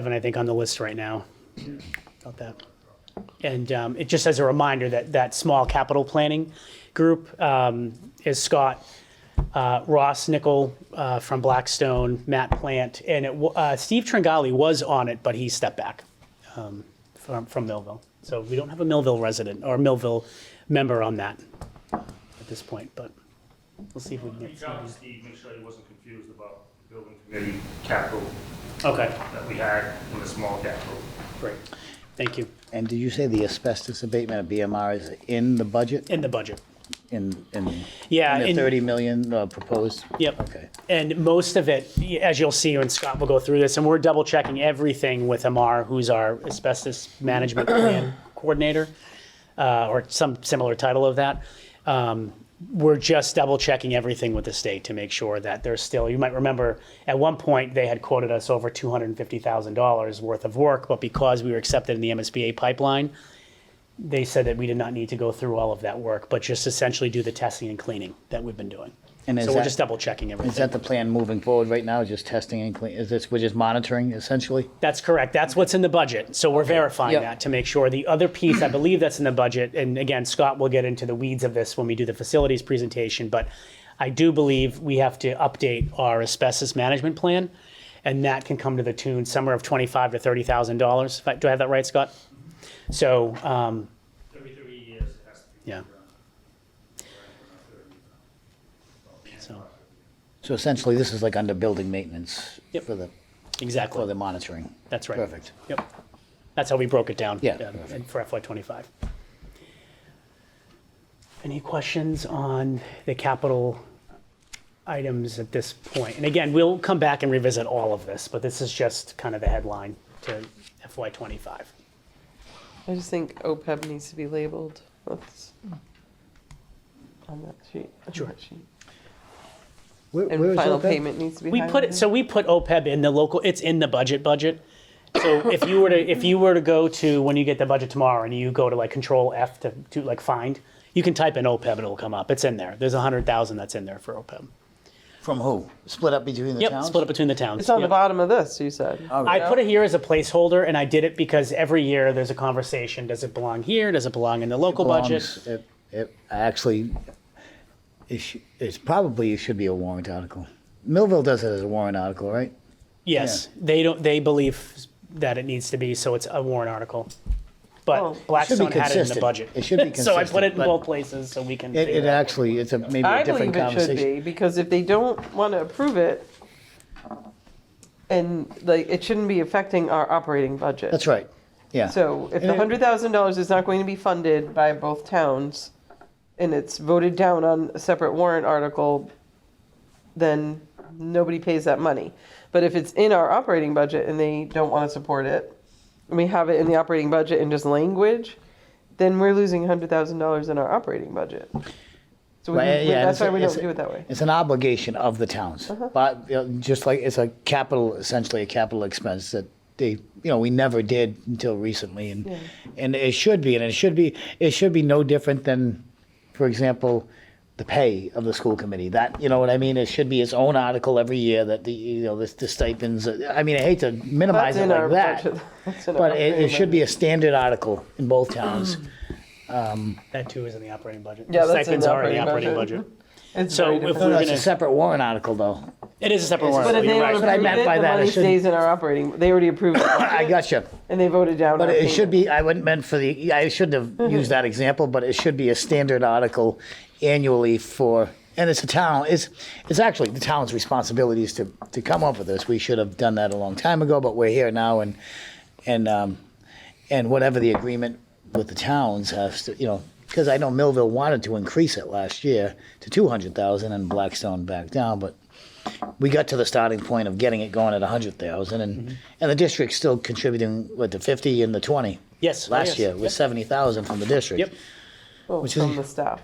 seven, I think, on the list right now. About that. And um, it just as a reminder that that small capital planning group um, is Scott uh, Ross Nickel uh, from Blackstone, Matt Plant, and it, wa- uh, Steve Tringali was on it, but he stepped back um, from, from Millville. So we don't have a Millville resident or Millville member on that at this point, but we'll see if we can get Reach out to Steve, make sure he wasn't confused about the building committee capital Okay, that we had in the small capital. great. Thank you. And did you say the asbestos abatement of BMR is in the budget, In the budget. in, in? Yeah, in the in- 30 million uh, proposed? Yep. Okay. And most of it, as you'll see, and Scott will go through this, and we're double checking everything with Amar, who's our asbestos management plan coordinator, uh, or some similar title of that. Um, we're just double checking everything with the state to make sure that there's still, you might remember, at one point, they had quoted us over $250,000 worth of work, but because we were accepted in the MSBA pipeline, they said that we did not need to go through all of that work, but just essentially do the testing and cleaning that we've been doing. And is so we're that- just double checking everything. Is that the plan moving forward right now, just testing and clean, is this, we're just monitoring essentially? That's correct. That's what's in the budget. So we're verifying Yep. that to make sure. The other piece, I believe that's in the budget, and again, Scott will get into the weeds of this when we do the facilities presentation, but I do believe we have to update our asbestos management plan, and that can come to the tune somewhere of twenty-five to thirty thousand dollars. Do I have that right, Scott? So, um, Every three years, it has to be. Yeah. so, So essentially, this is like under building maintenance Yep. for the, for exactly. the monitoring? That's right. Perfect. Yep. That's how we broke it down. Yeah. um, and For FY '25. Any questions on the capital items at this point? And again, we'll come back and revisit all of this, but this is just kind of the headline to FY '25. I just think OPEB needs to be labeled. That's Hmm. on that sheet. on Sure. that sheet. Where- where And is E final that? payment needs to be We put it, highlighted. so we put OPEB in the local, it's in the budget budget. So if you were to, if you were to go to, when you get the budget tomorrow and you go to like control F to, to like find, you can type in OPEB and it'll come up. It's in there. There's a hundred thousand that's in there for OPEB. From who? Split up between the Yep, towns? split up between the towns. It's on the Yep. bottom of this, you said. Oh, I put it here as a placeholder, and I did it because every year there's a conversation: does it belong here? Does it belong in the local budget? Belongs- it- it- Actually, it sh- it's probably, it should be a warrant article. Millville does it as a warrant article, right? Yes, they don't. They believe that it needs to be, so it's a warrant article. But Oh. Blackstone It should be had it in the consistent. budget. It should be so I put it in consistent, but- both places, so we can. It, figure it out. actually, it's a, maybe I a believe different it should conversation. be, because if they don't want to approve it, and like, it shouldn't be affecting our operating budget. That's right, yeah. So if the And it- hundred thousand dollars is not going to be funded by both towns, and it's voted down on a separate warrant article, then nobody pays that money. But if it's in our operating budget and they don't want to support it, and we have it in the operating budget in just language, then we're losing hundred thousand dollars in our operating budget. So we, Well, we- yeah, and that's it's a- why we don't it's a- do it that way. Uh-huh. It's an obligation of the towns, but you know, just like it's a capital, essentially a capital expense that they, you know, we never did until recently, and and it should be, and it should be, it should be no different than, for example, the pay of the school committee. That you know what I mean? It should be its own article every year that the you know the, the stipends. I mean, I hate to minimize That's it in like our that, budget. That's in our but it, operating it should be a standard article in both towns. That too is in the operating budget. Yeah, that's in the Stipends are in the operating operating budget. budget. It's So very if different. No, We're no, it's a gonna- separate warrant article, though. It is a separate warrant. But if article, they you're don't right. But I approve meant it, by the that, I money shouldn't- stays in our operating, they already approved it. I got you. And they voted down. But our it should payment. be, Mm-hmm. I wouldn't meant for the, I shouldn't have used that example, but it should be a standard article annually for, and it's a town, it's, it's actually the town's responsibilities to, to come up with this. We should have done that a long time ago, but we're here now and, and, um, and whatever the agreement with the towns has to, you know, because I know Millville wanted to increase it last year to two hundred thousand and Blackstone backed down, but we got to the starting point of getting it going at 100,000 and Mm-hmm. and the district's still contributing what the 50 and the 20 Yes, oh, last yes, year was yep. 70,000 from the district Yep. Well, which is- from the staff.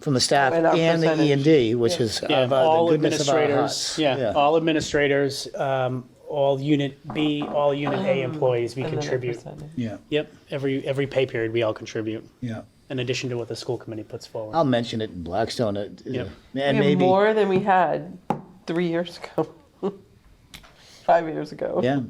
from the staff and, And our the percentage. E&D which is Yeah, of, uh, all the goodness of our administrators. hearts Yeah, all administrators, um, all unit B, all unit A employees, we Um, and then a contribute. percentage. yeah Yep, every, every pay period, we all contribute, yeah in addition to what the school committee puts forward. I'll mention it in Blackstone uh, Yep. and we have maybe more than we had three years ago, five years ago. yeah